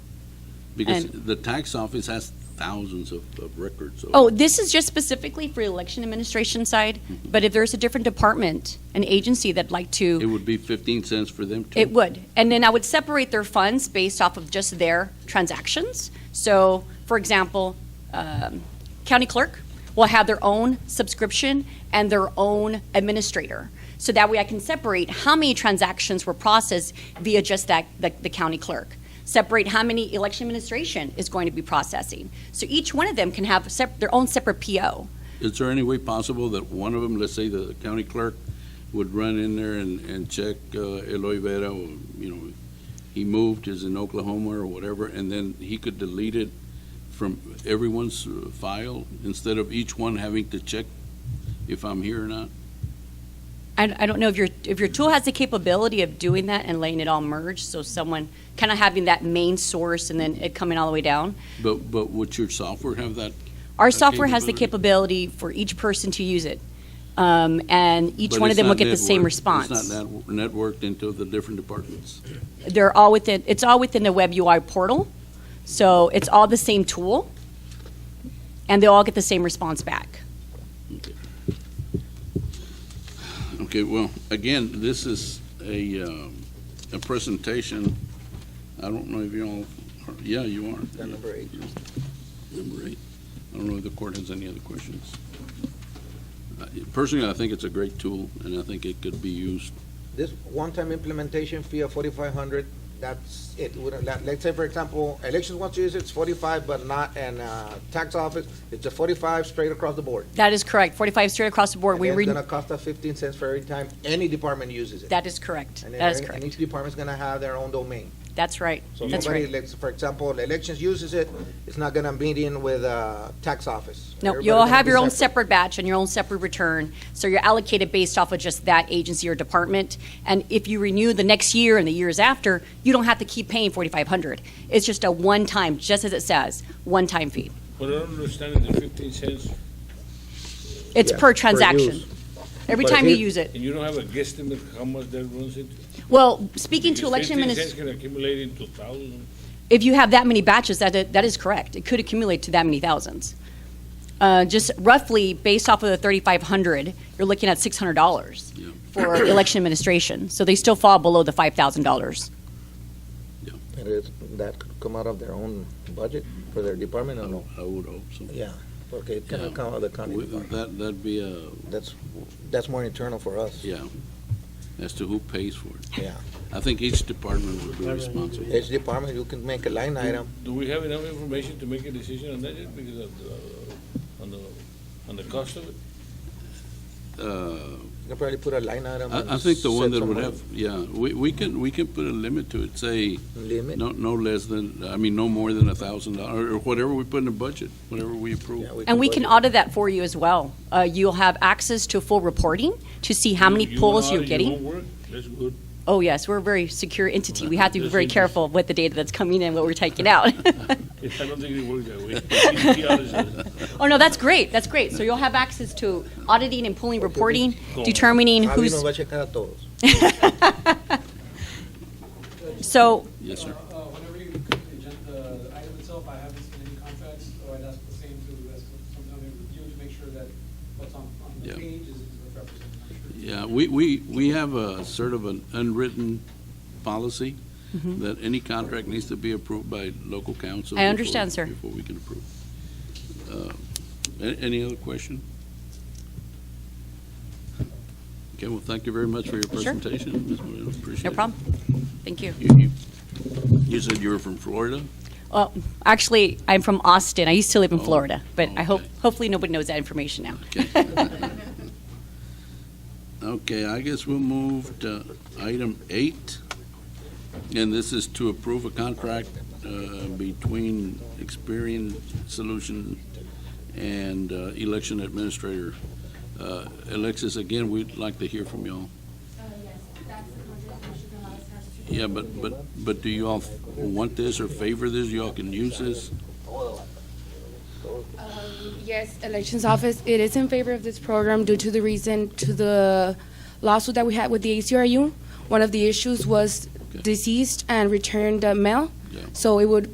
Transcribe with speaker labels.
Speaker 1: Because
Speaker 2: And-
Speaker 1: the tax office has thousands of, of records. of-
Speaker 2: Oh, this is just specifically for election administration side, but if there's a different department, an agency that'd like
Speaker 1: Mm-hmm. It
Speaker 2: to,
Speaker 1: would be fifteen cents for them too.
Speaker 2: it would. And then I would separate their funds based off of just their transactions. So, for example, um, county clerk will have their own subscription and their own administrator. So that way I can separate how many transactions were processed via just that, the, the county clerk. Separate how many election administration is going to be processing. So each one of them can have sep- their own separate PO.
Speaker 1: Is there any way possible that one of them, let's say the county clerk, would run in there and, and check uh, Eloy Vera, or, you know, he moved, is in Oklahoma or whatever, and then he could delete it from everyone's uh, file instead of each one having to check if I'm here or not?
Speaker 2: I, I don't know if your if your tool has the capability of doing that and letting it all merge, so someone kind of having that main source and then it coming all the way down.
Speaker 1: But, but would your software have that?
Speaker 2: Our
Speaker 1: That
Speaker 2: software has the capability for each person to use it, um, and each
Speaker 1: But
Speaker 2: one of
Speaker 1: it's
Speaker 2: them will
Speaker 1: not
Speaker 2: get the same
Speaker 1: networked.
Speaker 2: response.
Speaker 1: It's not net- networked into the different departments.
Speaker 2: They're all within. It's all within the web UI portal, so it's all the same tool, and they all get the same response back.
Speaker 1: Okay, well, again, this is a, um, a presentation. I don't know if you all, are- yeah, you are. number eight. Number eight. I don't know if the court has any other questions. Uh, Personally, I think it's a great tool, and I think it could be used.
Speaker 3: This one-time implementation fee of forty-five hundred, that's it. We don't- let- Let's say, for example, elections wants to use it, it's forty-five, but not, and, uh, tax office, it's a forty-five straight across the board.
Speaker 2: That is correct. Forty-five straight across the board.
Speaker 3: And
Speaker 2: we
Speaker 3: it's
Speaker 2: re-
Speaker 3: gonna cost us fifteen cents for every time any department uses it.
Speaker 2: that is correct.
Speaker 3: And then
Speaker 2: That is
Speaker 3: every-
Speaker 2: correct.
Speaker 3: And each department's gonna have their own domain.
Speaker 2: That's right.
Speaker 3: So
Speaker 2: That's
Speaker 3: somebody,
Speaker 2: right.
Speaker 3: let's, for example, the elections uses it, it's not gonna meet in with, uh, tax office.
Speaker 2: No,
Speaker 3: Everybody's
Speaker 2: you'll
Speaker 3: gonna
Speaker 2: have
Speaker 3: be
Speaker 2: your own separate batch and your own separate return, so you're allocated based off of just that agency or department. And if you renew the next year and the years after, you don't have to keep paying forty-five hundred. It's just a one-time, just as it says, one-time fee.
Speaker 4: What I don't understand is the fifteen cents,
Speaker 2: It's
Speaker 3: Yeah,
Speaker 2: per
Speaker 3: per
Speaker 2: transaction.
Speaker 3: use.
Speaker 2: Every
Speaker 3: But
Speaker 2: time you
Speaker 3: if-
Speaker 2: use it.
Speaker 4: and you don't have a guesstimate how much that runs into?
Speaker 2: Well, speaking to
Speaker 4: Because
Speaker 2: election
Speaker 4: Fifteen
Speaker 2: ministers,
Speaker 4: cents can accumulate into thousands.
Speaker 2: if you have that many batches, that, i- that is correct. It could accumulate to that many thousands. Uh, just roughly based off of the 3,500, you're looking at $600
Speaker 1: Yeah.
Speaker 2: for election administration. So they still fall below the $5,000.
Speaker 3: And it's, that could come out of their own budget for their department or no?
Speaker 1: I would hope so.
Speaker 3: Yeah, okay, it
Speaker 1: Yeah.
Speaker 3: cannot come out of the county
Speaker 1: Would-
Speaker 3: department.
Speaker 1: That, that'd be a,
Speaker 3: That's, that's more internal for us.
Speaker 1: yeah, as to who pays for it.
Speaker 3: Yeah.
Speaker 1: I think each department would be responsible.
Speaker 3: Each department, you can make a line item.
Speaker 4: Do we have enough information to make a decision on that yet because of the, on the, on the cost of it?
Speaker 1: Uh,
Speaker 3: You can probably put a line item. and
Speaker 1: I, I think the one
Speaker 3: set
Speaker 1: that would
Speaker 3: some
Speaker 1: have, yeah, we, we can, we can put a limit to it, say,
Speaker 3: Limit.
Speaker 1: No, no less than, I mean, no more than a thousand dollars, or whatever we put in the budget, whatever we approve.
Speaker 3: Yeah,
Speaker 2: And we can
Speaker 3: budget.
Speaker 2: audit that for you as well. Uh, you'll have access to full reporting to see how many
Speaker 4: You- you
Speaker 2: polls
Speaker 4: want
Speaker 2: you're
Speaker 4: audit,
Speaker 2: getting.
Speaker 4: You won't work, that's good.
Speaker 2: Oh, yes, we're a very secure entity. We have to be
Speaker 4: This
Speaker 2: very
Speaker 4: is-
Speaker 2: careful with the data that's coming in, what we're taking out.
Speaker 4: I don't think it works that way.
Speaker 2: oh, no, that's great. That's great. So you'll have access to auditing and pulling reporting,
Speaker 4: Cool.
Speaker 2: determining
Speaker 3: Javi nos
Speaker 2: who's.
Speaker 3: va a checar a todos.
Speaker 2: So
Speaker 1: Yes, sir.
Speaker 5: Uh, Whenever you cook the agenda item itself, I haven't seen any contracts, so I'd ask the same to, as sometimes review to make sure that what's on, on the
Speaker 1: Yeah.
Speaker 5: page is is represented. I'm sure.
Speaker 1: Yeah, we, we, we have a sort of an unwritten policy that any contract needs to be approved by local council.
Speaker 2: Mm-hmm. I understand,
Speaker 1: before-
Speaker 2: sir.
Speaker 1: Before we can approve. Uh, a- Any other question? Okay, well, thank you very much for your
Speaker 2: Sure.
Speaker 1: presentation. Ms. Moreno. Appreciate it.
Speaker 2: No problem. Thank you.
Speaker 1: You, you- you said you were from Florida?
Speaker 2: Well, actually, I'm from Austin. I used to live in
Speaker 1: Oh,
Speaker 2: Florida, but I hope
Speaker 1: okay.
Speaker 2: hopefully nobody knows that information now.
Speaker 1: Okay. Okay, I guess we'll move to item eight, and this is to approve a contract uh, between Experian Solution and uh, Election Administrator. Uh, Alexis, again, we'd like to hear from y'all.
Speaker 6: Uh, yes, that's the contract that Sugar House has to.
Speaker 1: Yeah, but, but, but do you all want this or favor this? Y'all can use this?
Speaker 6: Um, Yes, Elections Office, it is in favor of this program due to the reason, to the lawsuit that we had with the ACRU. One of the issues was deceased and returned uh, mail.
Speaker 1: Yeah.
Speaker 6: So it would